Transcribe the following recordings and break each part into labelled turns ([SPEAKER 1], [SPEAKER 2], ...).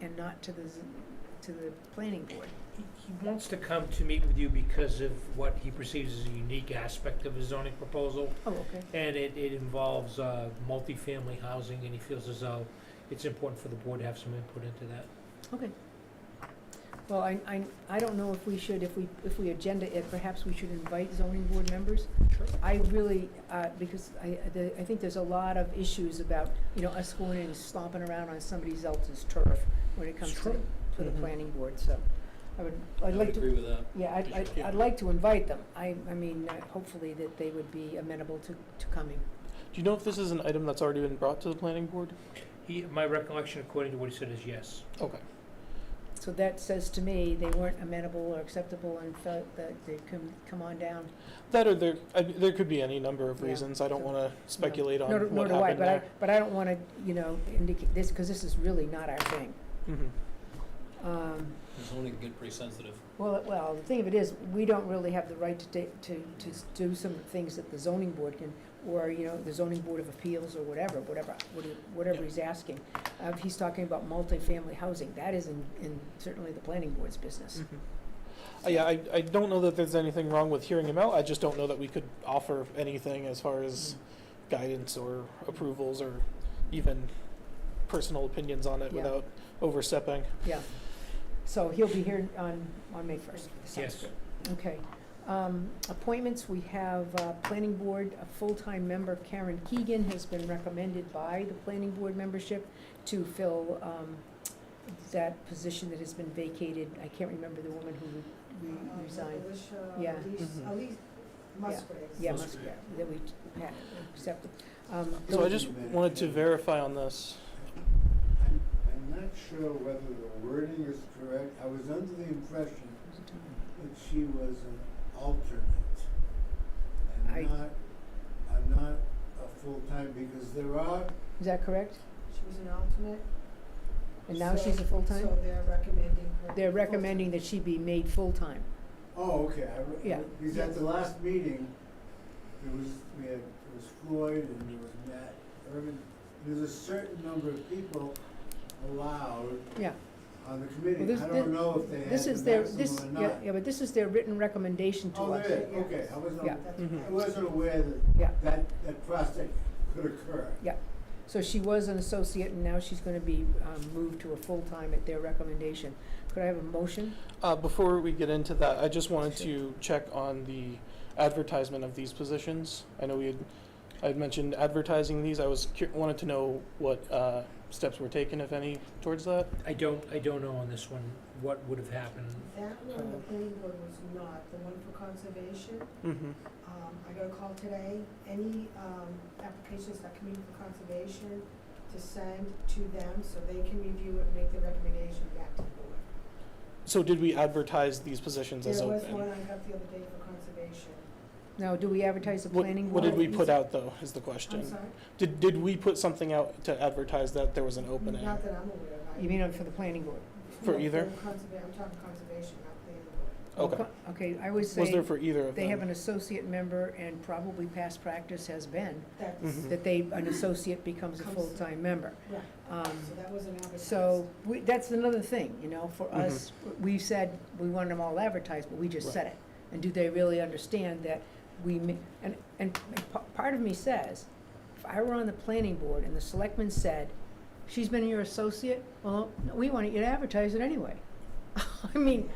[SPEAKER 1] and not to the, z- to the planning board.
[SPEAKER 2] He he wants to come to meet with you because of what he perceives as a unique aspect of his zoning proposal,
[SPEAKER 1] Oh, okay.
[SPEAKER 2] and it, it involves, uh, multifamily housing, and he feels as though it's important for the board to have some input into that.
[SPEAKER 1] Okay. Well, I, I, I don't know if we should, if we, if we agenda it, perhaps we should invite zoning board members.
[SPEAKER 2] Sure.
[SPEAKER 1] I really, uh, because I, I- the, I think there's a lot of issues about, you know, us going and stomping around on somebody else's turf when it comes to,
[SPEAKER 2] true.
[SPEAKER 1] to the
[SPEAKER 2] Mhm.
[SPEAKER 1] planning board, so. I would, I'd
[SPEAKER 3] I would
[SPEAKER 1] like to,
[SPEAKER 3] agree with that.
[SPEAKER 1] yeah, I'd, I'd,
[SPEAKER 3] Yeah.
[SPEAKER 1] I'd like to invite them. I, I mean, uh, hopefully that they would be amenable to, to coming.
[SPEAKER 4] Do you know if this is an item that's already been brought to the planning board?
[SPEAKER 2] He, my recollection according to what he said is yes.
[SPEAKER 4] Okay.
[SPEAKER 1] So that says to me, they weren't amenable or acceptable and felt that they come, come on down.
[SPEAKER 4] That or there, I, there could be any number of
[SPEAKER 1] Yeah.
[SPEAKER 4] reasons. I don't want to speculate on
[SPEAKER 1] Nor do- nor
[SPEAKER 4] what
[SPEAKER 1] do I,
[SPEAKER 4] happened
[SPEAKER 1] but I,
[SPEAKER 4] there.
[SPEAKER 1] but I don't want to, you know, indicate this, because this is really not our thing.
[SPEAKER 4] Mhm.
[SPEAKER 1] Um,
[SPEAKER 3] Zoning can get pretty sensitive.
[SPEAKER 1] Well, it- well, the thing of it is, we don't really have the right to ta- to, to s- do some things that the zoning board can, or, you know, the zoning board of appeals or whatever, whatever, what he- whatever he's asking. Uh, if he's talking about multifamily housing, that is in, in certainly the planning board's business.
[SPEAKER 4] Uh, yeah, I, I don't know that there's anything wrong with hearing him out. I just don't know that we could offer anything as far as
[SPEAKER 1] Mm.
[SPEAKER 4] guidance or approvals or even personal opinions on it
[SPEAKER 1] Yeah.
[SPEAKER 4] without overstepping.
[SPEAKER 1] Yeah. So he'll be here on, on May first.
[SPEAKER 2] Yes.
[SPEAKER 1] Okay. Um, Appointments, we have uh, Planning Board, a full-time member Karen Keegan has been recommended by the Planning Board membership to fill um, that position that has been vacated. I can't remember the woman who re-
[SPEAKER 5] Uh,
[SPEAKER 1] resigned.
[SPEAKER 5] Alicia-
[SPEAKER 1] Yeah. Mm-hmm.
[SPEAKER 5] Alice-
[SPEAKER 4] Mhm.
[SPEAKER 5] Alice Musgraves.
[SPEAKER 1] Yeah,
[SPEAKER 3] Must
[SPEAKER 1] must-
[SPEAKER 3] be.
[SPEAKER 1] that we had accepted. Um,
[SPEAKER 4] So I just wanted to verify on this.
[SPEAKER 6] I'm, I'm not sure whether the wording is correct. I was under the impression that she was an alternate
[SPEAKER 1] I-
[SPEAKER 6] and not, I'm not a full-time, because there are,
[SPEAKER 1] Is that correct?
[SPEAKER 5] She was an alternate.
[SPEAKER 1] And now she's
[SPEAKER 5] so-
[SPEAKER 1] a full-time?
[SPEAKER 5] So they're recommending her.
[SPEAKER 1] They're recommending that she be made full-time.
[SPEAKER 6] oh, okay, I, re-
[SPEAKER 1] Yeah.
[SPEAKER 6] because at the last meeting, there was, we had, there was Floyd and there was Matt Irvin. There's a certain number of people allowed
[SPEAKER 1] Yeah.
[SPEAKER 6] on the
[SPEAKER 1] Well,
[SPEAKER 6] committee.
[SPEAKER 1] this-
[SPEAKER 6] I
[SPEAKER 1] this-
[SPEAKER 6] don't know if they had
[SPEAKER 1] This is
[SPEAKER 6] the
[SPEAKER 1] their, this,
[SPEAKER 6] maximum or
[SPEAKER 1] yeah,
[SPEAKER 6] not.
[SPEAKER 1] yeah, but this is their written recommendation to us.
[SPEAKER 6] Oh, there is, okay, I wasn't,
[SPEAKER 1] Yeah.
[SPEAKER 5] full-time. That's
[SPEAKER 4] Mhm.
[SPEAKER 6] I
[SPEAKER 5] right.
[SPEAKER 6] wasn't aware
[SPEAKER 1] Yeah.
[SPEAKER 6] that, that, that prospect could occur.
[SPEAKER 1] So she was an associate, and now she's gonna be um, moved to a full-time at their recommendation. Could I have a motion?
[SPEAKER 4] Uh, before we get into that, I just wanted to check on the advertisement of these positions. I know we had, I had mentioned advertising these. I was cur- wanted to know what uh, steps were taken, if any, towards that.
[SPEAKER 2] I don't, I don't know on this one what would have happened.
[SPEAKER 5] That one, the planning board was not, the one for conservation,
[SPEAKER 4] Mm-hmm.
[SPEAKER 5] um, I got a call today, any, um, applications that come in for conservation to send to them so they can review it and make the recommendation back to the board.
[SPEAKER 4] So did we advertise these positions as
[SPEAKER 5] There was
[SPEAKER 4] open?
[SPEAKER 5] one I got the other day for conservation.
[SPEAKER 1] Now, do we advertise the
[SPEAKER 4] What-
[SPEAKER 1] planning
[SPEAKER 4] What
[SPEAKER 1] board?
[SPEAKER 4] did we
[SPEAKER 5] board?
[SPEAKER 4] put out though? Is the
[SPEAKER 5] I'm
[SPEAKER 4] question.
[SPEAKER 5] sorry?
[SPEAKER 4] Did did we put something out to advertise that there was an opening?
[SPEAKER 5] Not that I'm aware of. I-
[SPEAKER 1] You mean on- for the planning board?
[SPEAKER 4] For
[SPEAKER 5] No,
[SPEAKER 4] either?
[SPEAKER 5] conserva- I'm talking conservation, not planning board.
[SPEAKER 4] Okay.
[SPEAKER 1] Well, co- Okay, I would
[SPEAKER 4] was there
[SPEAKER 1] say
[SPEAKER 4] for either of
[SPEAKER 1] they
[SPEAKER 4] them?
[SPEAKER 1] have an associate member, and probably past practice has been
[SPEAKER 5] That's,
[SPEAKER 4] Mhm.
[SPEAKER 1] that they, an associate becomes a
[SPEAKER 5] Comes-
[SPEAKER 1] full-time member.
[SPEAKER 5] right,
[SPEAKER 1] Um,
[SPEAKER 5] so that wasn't advertised.
[SPEAKER 1] So, we, that's another thing, you know, for
[SPEAKER 4] Mhm.
[SPEAKER 1] us, we said we wanted them all advertised, but we just
[SPEAKER 4] Right.
[SPEAKER 1] said it. And do they really understand that we, ma- and, and p- part of me says, if I were on the planning board and the selectman said, she's been your associate, well, we want you to advertise it anyway. I mean,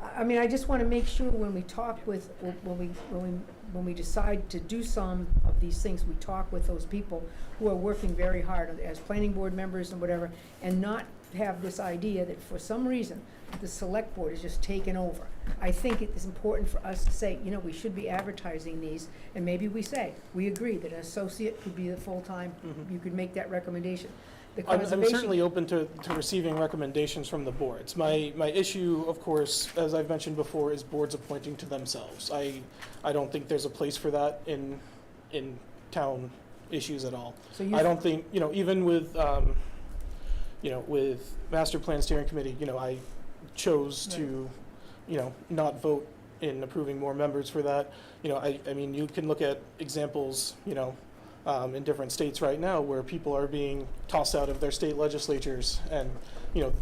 [SPEAKER 1] I I mean, I just want to make sure when we talk with, when we, when we, when we decide to do some of these things, we talk with those people who are working very hard as planning board members and whatever, and not have this idea that for some reason, the select board is just taken over. I think it is important for us to say, you know, we should be advertising these, and maybe we say, we agree that an associate could be the full-time,
[SPEAKER 4] Mhm.
[SPEAKER 1] you could make that recommendation. The
[SPEAKER 4] I'm, I'm
[SPEAKER 1] conservation
[SPEAKER 4] certainly open to, to receiving recommendations from the boards. My, my issue, of course, as I've mentioned before, is boards appointing to themselves. I, I don't think there's a place for that in, in town issues at all.
[SPEAKER 1] So you-
[SPEAKER 4] I don't think, you know, even with, um, you know, with master plan steering committee, you know, I chose to, you know, not vote in approving more members for that. You know, I, I mean, you can look at examples, you know, um, in different states right now where people are being tossed out of their state legislatures and, you know,